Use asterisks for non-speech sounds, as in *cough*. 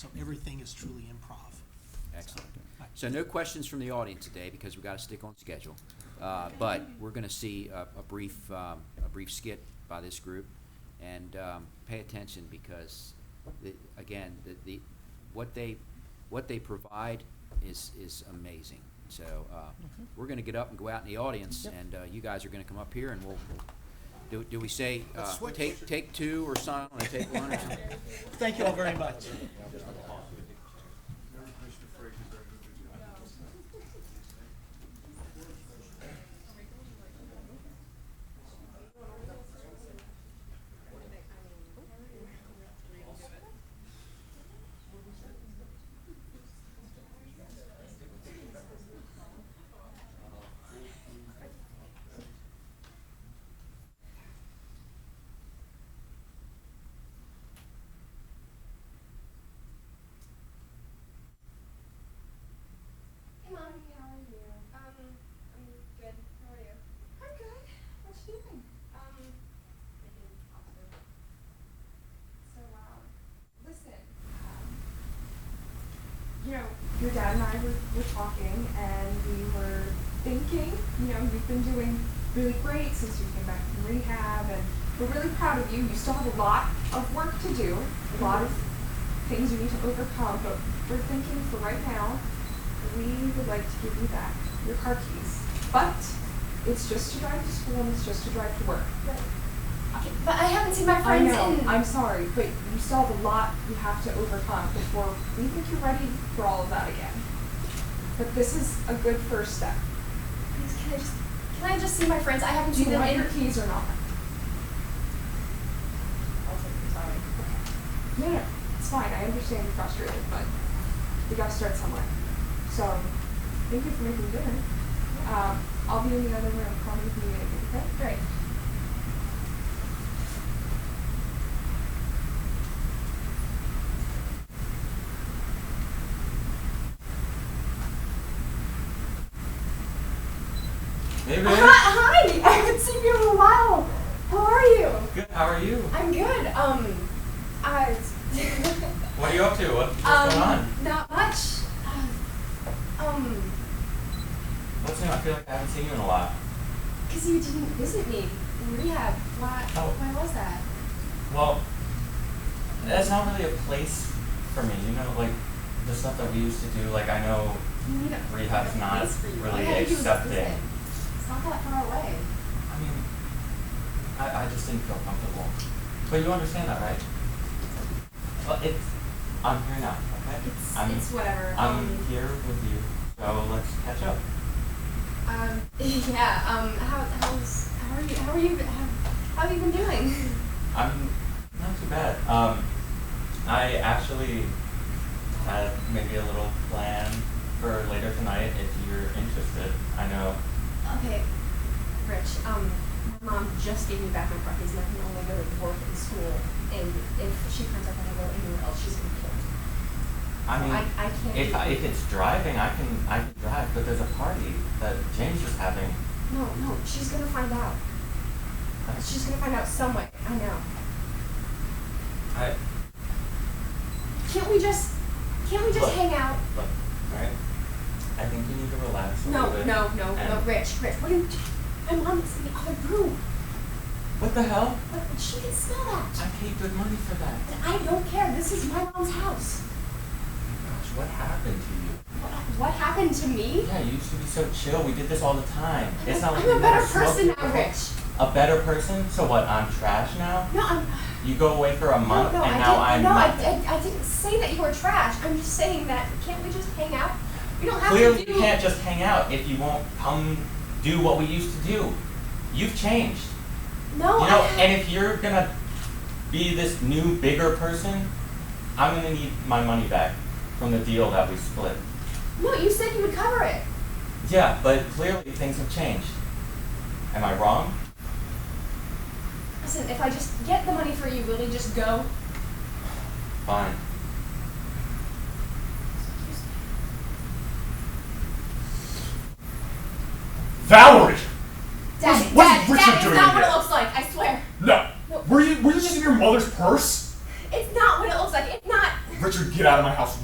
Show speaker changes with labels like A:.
A: So everything is truly improv.
B: Excellent. So no questions from the audience today because we've got to stick on schedule. Uh, But we're going to see a a brief, um, a brief skit by this group. And um, pay attention because, the- again, the- the, what they, what they provide is, is amazing. So uh, we're going to get up and go out in the audience and uh, you guys are going to come up here and we'll, we'll- do do we say, uh, take, take two or sign on and take one or something?
A: Thank you all very much.
C: Hey, Mommy, how are you? Um, I'm good. How are you? I'm good. What you doing? Um, making popcorn. So loud. Listen. Um, you know, your dad and I were, were talking, and we were thinking. You know, you've been doing really great since you came back from rehab, and we're really proud of you. You still have a lot of work to do, a lot of things you need to overcome, but we're thinking for right now, we would like to give you back your car keys. But it's just to drive to school and it's just to drive to work.
D: Okay, but I haven't seen my
C: I
D: friends
C: know,
D: in.
C: I'm sorry, but you still have a lot you have to overcome before we think you're ready for all of that again. But this is a good first step.
D: Please, can I just can I just see my friends? I haven't
C: Do
D: seen
C: you
D: them
C: want
D: in.
C: your keys or not? I'll take them, sorry. No, no, it's fine, I understand you're frustrated, but we gotta start somewhere. So, thank you for making dinner. Um, I'll be in the other room, call me if you need anything, okay?
D: Great.
E: Hey,
D: Hi,
E: babe.
D: hi. I haven't seen you in a while. How are you?
E: Good. How are you?
D: I'm good. Um, I. *laughs*
E: What are you up to? What, what's
D: um,
E: going on?
D: not much. Uh, Um,
E: What's new? I feel like I haven't seen you in a while.
D: cause you didn't visit me in rehab. Why?
E: Oh.
D: Why was that?
E: Well, that's not really a place for me. You know, like the stuff that we used to do. Like I know
D: You need a
E: rehab's
D: a
E: not
D: place for you.
E: really
D: Why haven't you
E: accepting.
D: visited? It's not that far away.
E: I mean, I, I just didn't feel comfortable. But you understand that, right? Well, it's, I'm here now, okay?
D: It's
E: I'm,
D: it's whatever.
E: I'm
D: um,
E: here with you, so let's catch up.
D: Um, *laughs* yeah, um, how, how's, how are you, how are you, how, how have you been doing? *laughs*
E: I'm not too bad. Um, I actually had maybe a little plan for later tonight if you're interested. I know.
D: Okay, Rich, um, my mom just gave me back my car keys and I can only go to work and school, and if she finds out that I go anywhere else, she's gonna kill me.
E: I mean,
D: I, I can't.
E: if
D: do
E: I,
D: it.
E: if it's driving, I can I can drive. But there's a party that James is having.
D: No, no, she's gonna find out. She's gonna find out some way, I know.
E: I
D: Can't we just, can't we just
E: Look.
D: hang out?
E: look, alright. I think you need to relax a
D: No,
E: little bit.
D: no, no, no,
E: and-
D: Rich, Rich, what are you, my mom is in the other room,
E: What the hell?
D: but she can smell that.
E: I paid good money for that.
D: And I don't care. This is my mom's house.
E: Gosh, what happened to
D: What, what happened to me?
E: you? Yeah, you used to be so chill. We did this all the time. It's not like
D: I'm
E: we
D: a
E: never
D: better
E: smoked
D: person now,
E: before.
D: Rich.
E: a better person. So what? I'm trash now.
D: No, I'm.
E: You go away for a month,
D: no, no,
E: and
D: I
E: now
D: didn't,
E: I'm
D: no,
E: nothing.
D: I, I, I didn't say that you were trash. I'm just saying that can't we just hang out? You don't have
E: Clearly,
D: to do.
E: you can't just hang out if you won't come do what we used to do. You've changed,
D: No,
E: you know.
D: Oh, I,
E: And if you're gonna be this new, bigger person, I'm gonna need my money back from the deal that we split.
D: no, you said you would cover it.
E: Yeah, but clearly things have changed. Am I wrong?
D: Listen, if I just get the money for you, will you just go?
E: Fine.
F: Valerie!
D: Dad,
F: What's- what's
D: Dad,
F: Richard
D: Dad, it's
F: doing
D: not what it
F: here?
D: looks like. I swear,
F: No.
D: No.
F: Were you were you just in your mother's purse?
D: it's not what it looks like. It's not.
F: Richard, get out of my house